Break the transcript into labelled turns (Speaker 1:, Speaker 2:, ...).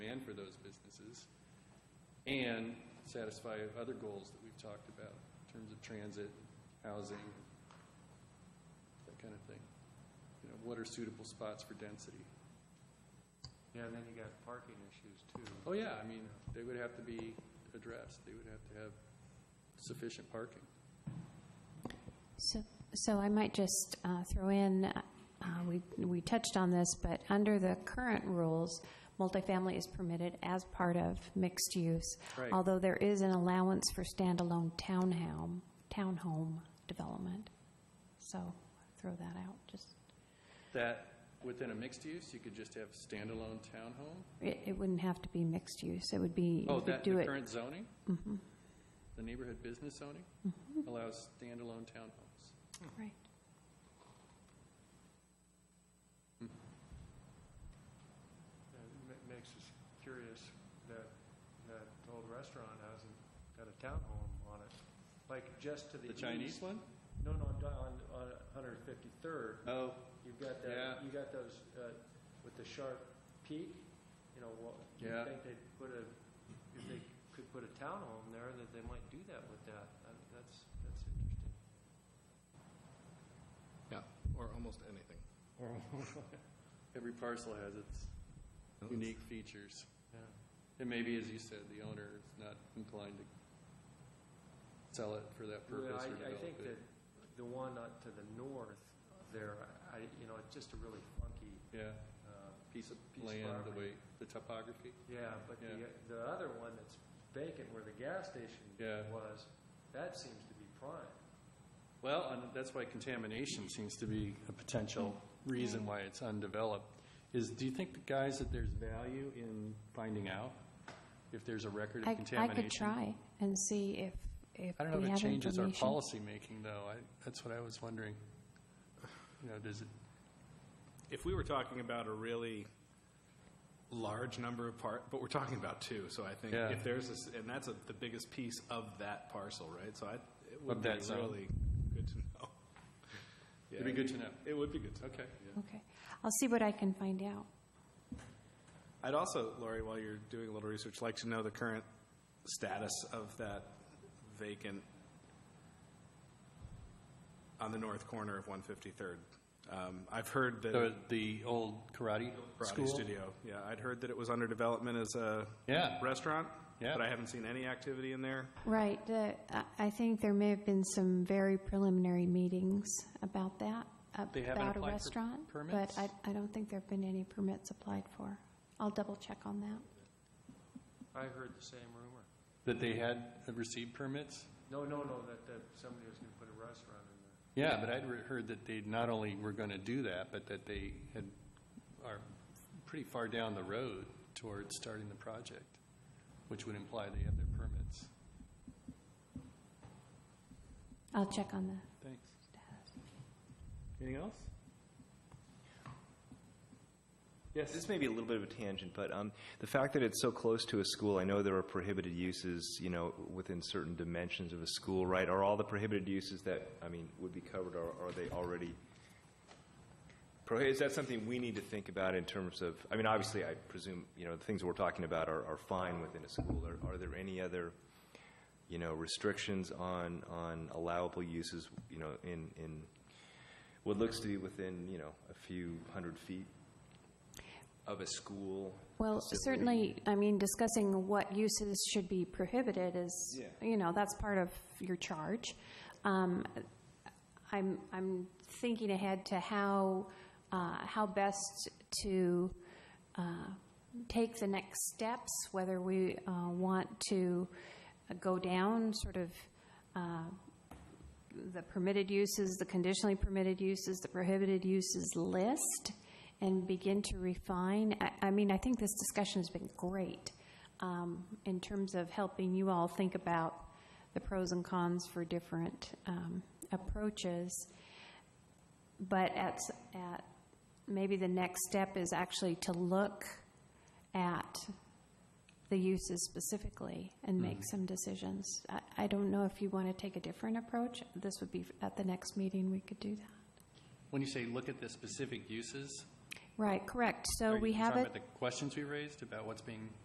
Speaker 1: demand for those businesses and satisfy other goals that we've talked about in terms of transit, housing, that kind of thing. You know, what are suitable spots for density?
Speaker 2: Yeah, and then you got parking issues too.
Speaker 1: Oh, yeah, I mean, they would have to be addressed. They would have to have sufficient parking.
Speaker 3: So, so I might just uh, throw in, uh, we, we touched on this, but under the current rules, multifamily is permitted as part of mixed use.
Speaker 1: Right.
Speaker 3: Although there is an allowance for standalone townhome, townhome development. So throw that out, just,
Speaker 1: That, within a mixed use, you could just have standalone townhome?
Speaker 3: it, it wouldn't have to be mixed use, it would be,
Speaker 1: Oh,
Speaker 3: you could
Speaker 1: that, the
Speaker 3: do it. Mm-hmm.
Speaker 1: current zoning? The neighborhood business zoning allows standalone townhomes.
Speaker 3: Right.
Speaker 2: And it ma- makes us curious that, that old restaurant hasn't got a townhome on it, like just to the
Speaker 1: The
Speaker 2: east.
Speaker 1: Chinese one?
Speaker 2: No, no, on, on, on 153rd,
Speaker 1: Oh,
Speaker 2: you've got
Speaker 1: Yeah.
Speaker 2: that, you got those, uh, with the sharp peak, you know, what, you
Speaker 1: Yeah.
Speaker 2: think they'd put a, if they could put a townhome there, that they might do that with that. I mean, That's, that's interesting.
Speaker 4: Yeah, or almost anything.
Speaker 1: every parcel has its unique features.
Speaker 2: Yeah.
Speaker 1: And maybe, as you said, the owner is not inclined to sell it for that
Speaker 2: Well,
Speaker 1: purpose
Speaker 2: I,
Speaker 1: or
Speaker 2: I
Speaker 1: develop
Speaker 2: think that
Speaker 1: it.
Speaker 2: the one up to the north there, I, you know, it's just a really funky,
Speaker 1: Yeah,
Speaker 2: uh,
Speaker 1: piece of
Speaker 2: Piece of
Speaker 1: land, the way,
Speaker 2: property.
Speaker 1: the topography.
Speaker 2: yeah, but
Speaker 1: Yeah.
Speaker 2: the, the other one that's vacant where the gas station
Speaker 1: Yeah.
Speaker 2: was, that seems to be prime.
Speaker 1: Well, and that's why contamination seems to be a potential reason why it's undeveloped, is do you think, the guys, that there's value in finding out if there's a record
Speaker 3: I,
Speaker 1: of
Speaker 3: I
Speaker 1: contamination?
Speaker 3: could try and see if, if
Speaker 1: I don't know
Speaker 3: we
Speaker 1: if it
Speaker 3: have
Speaker 1: changes our
Speaker 3: information.
Speaker 1: policymaking, though. I, that's what I was wondering. You know, does it,
Speaker 4: If we were talking about a really large number of part, but we're talking about two, so I think
Speaker 1: Yeah.
Speaker 4: if there's, a s- and that's a- the biggest piece of that parcel, right? So I, it would
Speaker 1: Of
Speaker 4: be
Speaker 1: that zone.
Speaker 4: really good to know.
Speaker 1: it'd be
Speaker 4: Yeah.
Speaker 1: good to know.
Speaker 4: It would be good to know.
Speaker 1: Okay.
Speaker 3: Okay, I'll see what I can find out.
Speaker 4: I'd also, Lori, while you're doing a little research, like to know the current status of that vacant on the north corner of 153rd. Um, I've heard that.
Speaker 1: The, the old karate
Speaker 4: Karate
Speaker 1: school?
Speaker 4: studio. Yeah, I'd heard that it was under development as a
Speaker 1: Yeah.
Speaker 4: restaurant.
Speaker 1: Yeah.
Speaker 4: But I haven't seen any activity in there.
Speaker 3: Right. the- I- I think there may have been some very preliminary meetings about that,
Speaker 1: They haven't
Speaker 3: about a
Speaker 1: applied for
Speaker 3: restaurant.
Speaker 1: permits?
Speaker 3: But I, I don't think there have been any permits applied for. I'll double check on that.
Speaker 2: I heard the same rumor.
Speaker 1: That they had received permits?
Speaker 2: No, no, no, that, that somebody was gonna put a restaurant in there.
Speaker 1: Yeah, but I'd re- heard that they not only were going to do that, but that they had, are pretty far down the road towards starting the project, which would imply they have their permits.
Speaker 3: I'll check on the
Speaker 1: Thanks.
Speaker 3: status.
Speaker 1: Anything else?
Speaker 5: This may be a little bit of a tangent, but um, the fact that it's so close to a school, I know there are prohibited uses, you know, within certain dimensions of a school, right? Are all the prohibited uses that, I mean, would be covered, or are they already prohibited? Is that something we need to think about in terms of, I mean, obviously, I presume, you know, the things we're talking about are, are fine within a school. Are- Are there any other, you know, restrictions on, on allowable uses, you know, in, in what looks to be within, you know, a few hundred feet of a school?
Speaker 3: Well,
Speaker 5: facility?
Speaker 3: certainly, I mean, discussing what uses should be prohibited is,
Speaker 5: Yeah.
Speaker 3: you know, that's part of your charge. Um, I'm, I'm thinking ahead to how, uh, how best to uh, take the next steps, whether we uh, want to go down sort of uh, the permitted uses, the conditionally permitted uses, the prohibited uses list, and begin to refine. I, I mean, I think this discussion has been great um, in terms of helping you all think about the pros and cons for different um, approaches. But at, s- at, maybe the next step is actually to look at the uses specifically and
Speaker 1: Mm-hmm.
Speaker 3: make some decisions. I, I don't know if you want to take a different approach. This would be at the next meeting, we could do that.
Speaker 1: When you say look at the specific uses?
Speaker 3: Right, correct. So
Speaker 1: are you
Speaker 3: Oh, we have
Speaker 1: Talking
Speaker 3: it,
Speaker 1: about the questions we raised about what's being